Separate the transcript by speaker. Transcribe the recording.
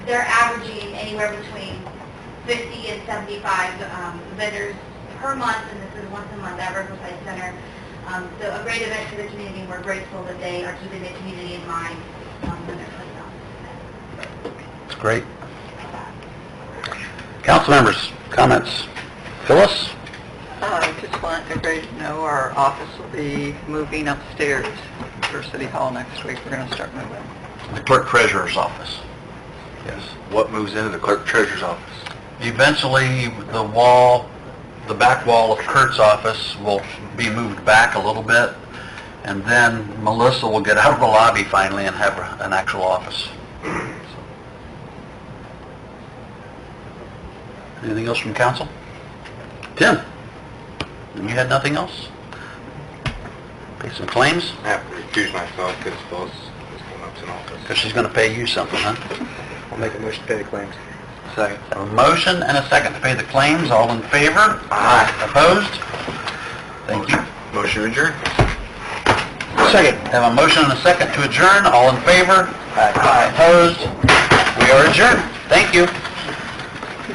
Speaker 1: they're averaging anywhere between 50 and 75 um, vendors per month, and this is once a month at Riverside Center. Um, So a great event for the community, and we're grateful that they are keeping the community in mind um, when they're putting on this
Speaker 2: It's great.
Speaker 1: event.
Speaker 2: Council members, comments? Phyllis?
Speaker 3: I just want everybody to know our office will be moving upstairs for City Hall next week. We're going to start moving.
Speaker 2: The clerk treasurer's office. Yes.
Speaker 4: What moves into the clerk treasurer's office?
Speaker 2: Eventually, the wall, the back wall of Kurt's office will be moved back a little bit, and then Melissa will get out of the lobby finally and have an actual office. Anything else from council? Tim? You had nothing else? Pay some claims?
Speaker 4: I have to recuse myself because Phyllis is going up to an office.
Speaker 2: Because she's going to pay you something, huh?
Speaker 4: I'll make a motion to pay the claims.
Speaker 2: Second. A motion and a second to pay the claims, all in favor?
Speaker 4: Aye.
Speaker 2: Opposed? Thank you.
Speaker 4: Motion adjourned.
Speaker 2: Second. Have a motion and a second to adjourn, all in favor? Aye. Opposed? We are adjourned. Thank you.